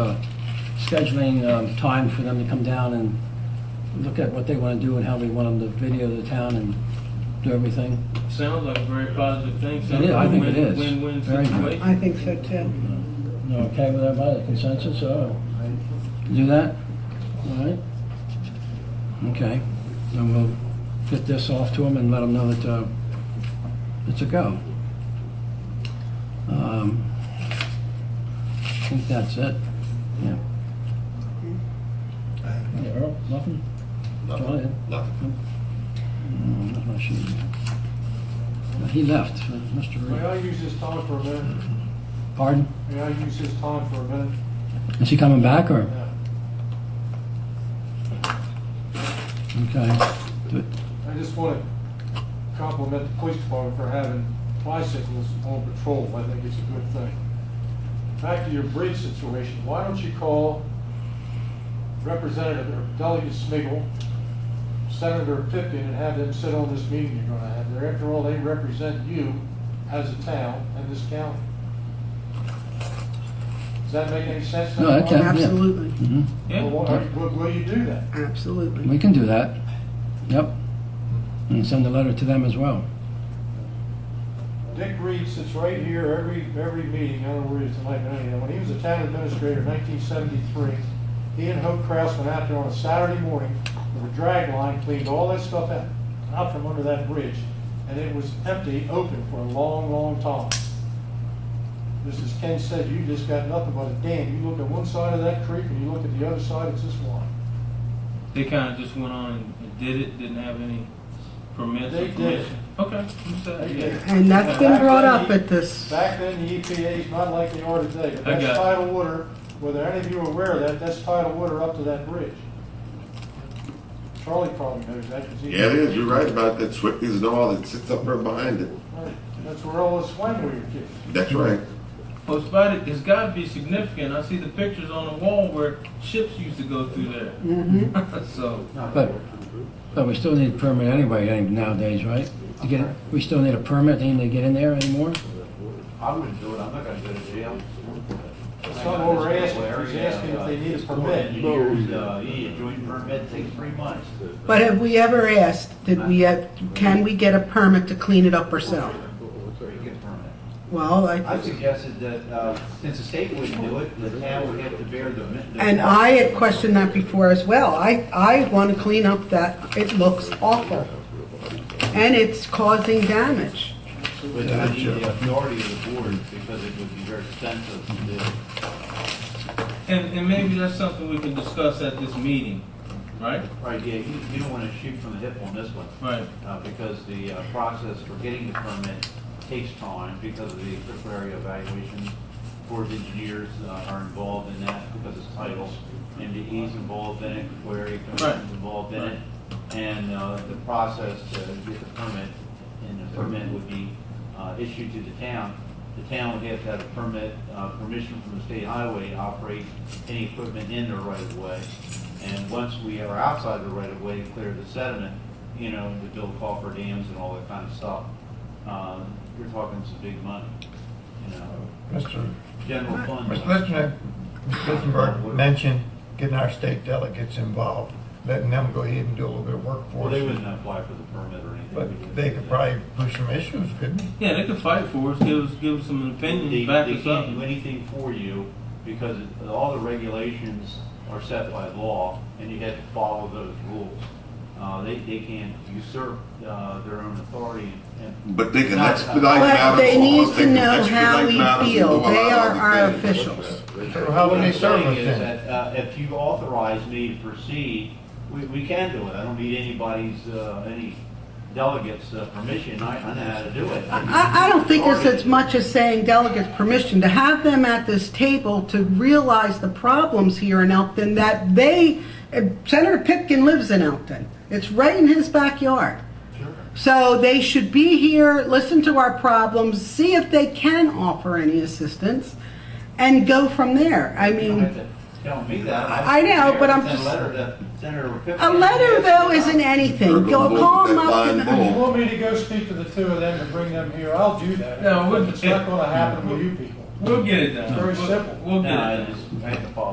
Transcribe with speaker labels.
Speaker 1: uh, scheduling um, time for them to come down and look at what they want to do and how we want them to video the town and do everything.
Speaker 2: Sounds like a very positive thing.
Speaker 1: It is, I think it
Speaker 2: Win-
Speaker 1: is.
Speaker 2: Win-win
Speaker 1: Very good.
Speaker 2: situation.
Speaker 3: I think so too.
Speaker 1: You okay with everybody, consensus, or do that? All right? Okay, then we'll get this off to them and let them know that uh, it's a go. Um, I think that's it, yeah. Yeah, Earl, nothing? Go ahead.
Speaker 4: Nothing, nothing.
Speaker 1: Mm, nothing I should- He left, uh, Mr.
Speaker 5: May
Speaker 1: Reed.
Speaker 5: I use this time for a minute?
Speaker 1: Pardon?
Speaker 5: May I use this time for a minute?
Speaker 1: Is he coming back, or?
Speaker 5: Yeah.
Speaker 1: Okay. Good.
Speaker 5: I just want to compliment the police department for having bicycles on patrol. I think it's a good thing. Back to your bridge situation, why don't you call Representative or Delegate Smigel, Senator Pippin, and have them sit on this meeting you're going to have there? After all, they represent you as a town and this county. Does that make any sense?
Speaker 1: No, that can- Yeah.
Speaker 3: Absolutely,
Speaker 1: Mhm.
Speaker 2: Yeah.
Speaker 5: Well, why- Will, will you do that?
Speaker 3: absolutely.
Speaker 1: We can do that. Yep. And send a letter to them as well.
Speaker 5: Dick Reed sits right here every, every meeting, I don't know where he is tonight, but anyhow, when he was a town administrator in nineteen seventy-three, he and Hope Kraus went out there on a Saturday morning with a drag line, cleaned all that stuff out, out from under that bridge, and it was empty, open for a long, long time. Just as Ken said, you just got nothing but a dam, you look at one side of that creek and you look at the other side, it's just one.
Speaker 2: They kind of just went on and- and did it, didn't have any permits
Speaker 5: They
Speaker 2: or
Speaker 5: did.
Speaker 2: permission. Okay, I'm sorry, yeah.
Speaker 3: And that's been brought up at this,
Speaker 5: Back then, the EPA is not like they are today, but
Speaker 2: I got
Speaker 5: that's
Speaker 2: it.
Speaker 5: tidal water, whether any of you are aware of that, that's tidal water up to that bridge. Charlie probably knows that, 'cause he-
Speaker 4: Yeah, it is, you're right about that, Swifties and all that sits up there behind it.
Speaker 5: Right. That's where all this when we were kids.
Speaker 4: That's right.
Speaker 2: Well, it's about it, it's gotta be significant. I see the pictures on the wall where ships used to go through there.
Speaker 3: Mm-hmm.
Speaker 2: So,
Speaker 1: But, but we still need a permit anyway eh, nowadays, right? To get, we still need a permit, to even get in there anymore?
Speaker 6: I wouldn't do it, I'm not gonna go to jail.
Speaker 5: That's not what we're asking, he's asking if they need
Speaker 6: uh,
Speaker 5: a permit.
Speaker 6: Years, uh, yeah, joint permit takes three months.
Speaker 3: but have we ever asked, did we, have- can we get a permit to clean it up ourselves?
Speaker 6: Or you get a permit.
Speaker 3: Well,
Speaker 6: I
Speaker 3: I,
Speaker 6: suggested that, uh, since the state wouldn't do it, the town would have to bear the. the-
Speaker 3: and I had questioned that before as well. I, I want to clean up that, it looks awful. And it's causing damage.
Speaker 6: But I need the authority of the board because it would be very expensive to do.
Speaker 2: and, and maybe that's something we can discuss at this meeting, right?
Speaker 6: Right, yeah, you, you don't wanna shoot from the hip on this one.
Speaker 2: Right.
Speaker 6: uh, because the uh, process for getting the permit takes time because of the critical area evaluation. Board of engineers uh, are involved in that because it's titles, MDE's involved in it, where area commission's
Speaker 2: Right.
Speaker 6: involved in it. And uh, the process to get the permit, and the permit would be uh, issued to the town. The town would have to have a permit, uh, permission from the state highway to operate any equipment in the right of way. And once we are outside the right of way, clear the sediment, you know, to build coffer dams and all that kind of stuff. Um, You're talking some big money, you know,
Speaker 7: Mr.
Speaker 6: general fund.
Speaker 7: Mr. Listener, Mr. Listenberg mentioned getting our state delegates involved, letting them go ahead and do a little bit of work
Speaker 6: Well,
Speaker 7: for
Speaker 6: they
Speaker 7: us.
Speaker 6: wouldn't apply for the permit or anything. We
Speaker 7: But
Speaker 6: wouldn't
Speaker 7: they
Speaker 6: do
Speaker 7: could
Speaker 6: that.
Speaker 7: probably push some issues, couldn't they?
Speaker 2: Yeah, they could fight for us, give us, give us some
Speaker 6: They,
Speaker 2: opinions, back
Speaker 6: they
Speaker 2: us
Speaker 6: can't do
Speaker 2: up.
Speaker 6: anything for you because it- all the regulations are set by law and you have to follow those rules. Uh, they, they can't usurp, uh, their own authority and.
Speaker 4: But they can
Speaker 6: Not-
Speaker 4: expedite
Speaker 3: But
Speaker 4: matters.
Speaker 3: they need
Speaker 4: laws,
Speaker 3: to
Speaker 4: can
Speaker 3: know how
Speaker 4: expedite matters
Speaker 3: we feel.
Speaker 4: and do a lot
Speaker 3: They
Speaker 4: of
Speaker 3: are
Speaker 4: other
Speaker 3: our
Speaker 4: things.
Speaker 3: officials.
Speaker 7: So how would they serve us
Speaker 6: What I'm saying is
Speaker 7: then?
Speaker 6: that, uh, if you authorize me to proceed, we, we can do it. I don't need anybody's, uh, any delegates' uh, permission. I, I know how to do it.
Speaker 3: I, I don't think it's as much as saying delegates permission, to have them at this table to realize the problems here in Elkton that they, Senator Pipkin lives in Elkton. It's right in his backyard.
Speaker 6: Sure.
Speaker 3: So they should be here, listen to our problems, see if they can offer any assistance, and go from there. I
Speaker 6: You don't have
Speaker 3: mean,
Speaker 6: to tell me that.
Speaker 3: I know, but I'm
Speaker 6: Send a
Speaker 3: just-
Speaker 6: letter to Senator Pippin.
Speaker 3: a letter though isn't anything. Go call them up and...
Speaker 4: They're
Speaker 5: You
Speaker 4: gonna
Speaker 5: want me to go speak to the two of them and bring them here, I'll do that.
Speaker 2: No, it wouldn't-
Speaker 5: It's not gonna happen with you people.
Speaker 2: We'll get it done.
Speaker 5: Very
Speaker 2: We'll-
Speaker 5: simple.
Speaker 2: We'll get it
Speaker 6: No, I
Speaker 2: done.
Speaker 6: just, I have to follow